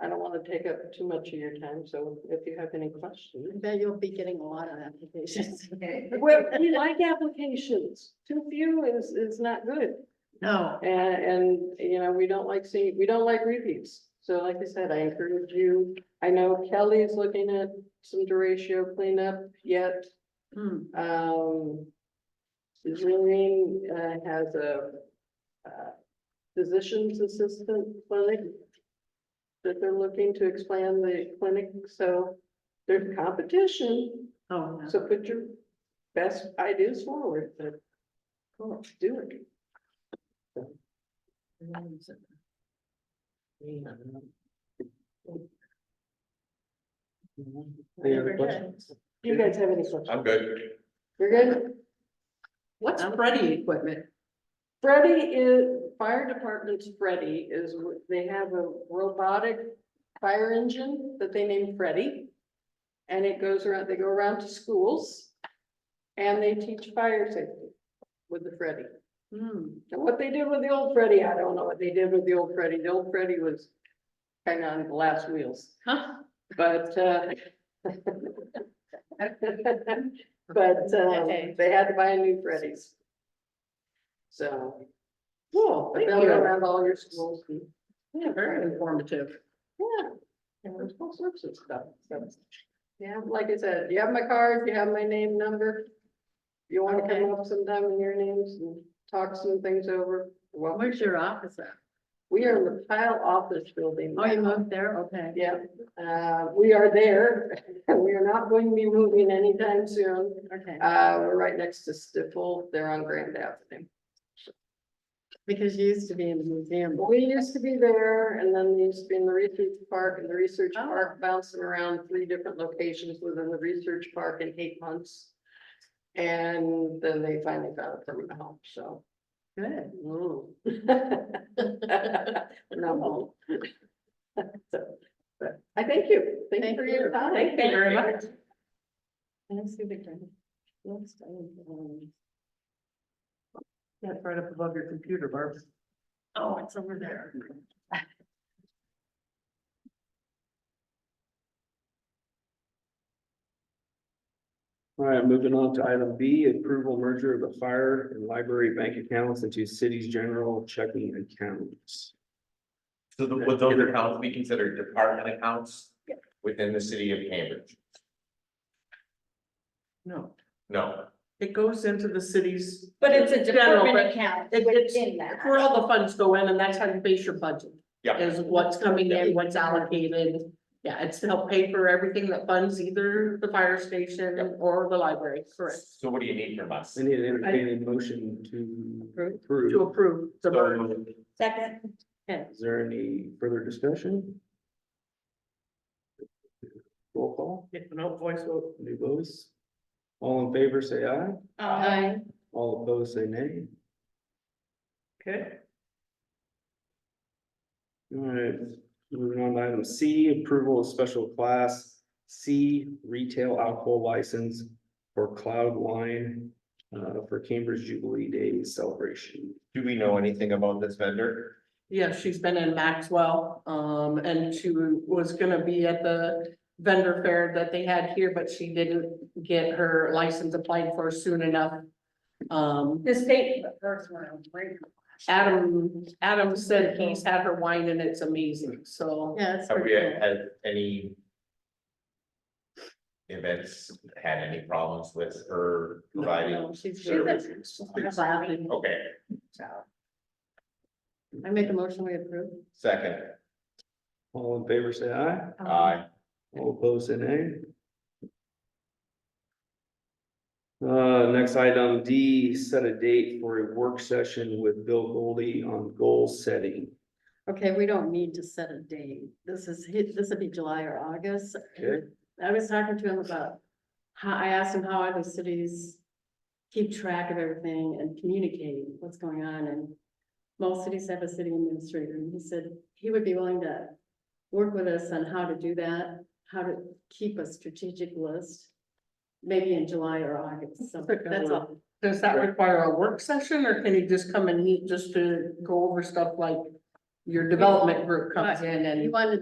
I don't want to take up too much of your time, so if you have any questions. I bet you'll be getting a lot of applications. Well, we like applications. Too few is, is not good. No, And, and, you know, we don't like seeing, we don't like repeats. So like I said, I encourage you, I know Kelly is looking at some deratio cleanup yet. Hmm. Um. Zillian, uh, has a, uh, physician's assistant clinic. That they're looking to expand the clinic, so there's competition, oh, no. so put your best ideas forward, but. Cool, do it. Any other questions? You guys have any questions? I'm good. You're good? What's Freddie equipment? Freddie is, fire department's Freddie is, they have a robotic fire engine that they named Freddie. And it goes around, they go around to schools and they teach fire safety with the Freddie. Hmm, And what they did with the old Freddie, I don't know what they did with the old Freddie. The old Freddie was kind of on the last wheels. huh, But, uh. But, um, Okay. they had to buy a new Freddy's. So. Cool, but thank they'll go you. around all your schools and, yeah, very informative. yeah. And there's all sorts of stuff, so. Yeah, like I said, you have my card, you have my name, number. If You wanna Okay. come up sometime in your names and talk some things over, well, Where's your office at? we are in the Pile Office Building. Oh, you now. moved there, okay. Yeah, uh, we are there. We are not going to be moving anytime soon. Okay, Uh, we're right next to Stifel. They're on Grand Avenue. because you used to be in the museum. We used to be there and then they used to be in the research park and the research Oh. park bouncing around three different locations within the research park in eight months. And then they finally found a permanent home, so. Good. mm. No, won't. So, But I thank you. Thank you Thank for your you. time. Thank you very Thank you. much. Let's see the grant. Looks, um, That's right up above your computer, Barb. Oh, it's over there. All right, moving on to item B, approval merger of the fire and library bank accounts into city's general checking accounts. So the- with those accounts, we consider department accounts within the city of Cambridge. No, No, it goes into the city's. But it's a General, department account It- it's- within that. Where all the funds go in and that's how you base your budget, yeah, is what's coming in, what's allocated. Yeah, it's to help pay for everything that funds either the fire station or the library, correct? so what do you need from us? I need an entertaining motion to Approve. To approve. approve the merger. So Second, Is there any further discussion? Roll call, No voice vote. new votes. All in favor, say aye. uh, All opposed, say nay. Okay. All right, moving on to item C, approval of special class C retail alcohol license for Cloud Wine uh, for Cambridge Jubilee Day celebration. Do we know anything about this vendor? Yeah, she's been in Maxwell, um, and she was gonna be at the vendor fair that they had here, but she didn't get her license applied for soon enough. Um, the state. first one, right? Adam, Adam said he's had her wine and it's amazing, so. Yeah, it's Have we pretty cool. had any events, had any problems with her providing? No, She's. service? Clapping. Okay, I make a motion, we approve. second, All in favor, say aye. aye, All opposed, say nay. Uh, next item D, set a date for a work session with Bill Goldie on goal setting. Okay, we don't need to set a date. This is, hi- this would be July or August. Okay. I was talking to him about how, I asked him how other cities keep track of everything and communicate what's going on and most cities have a city administrator and he said he would be willing to work with us on how to do that, how to keep a strategic list, maybe in July or August. So That's a good that's one. all. Does that require a work session or can he just come and meet just to go over stuff like your development group comes in and? You wanted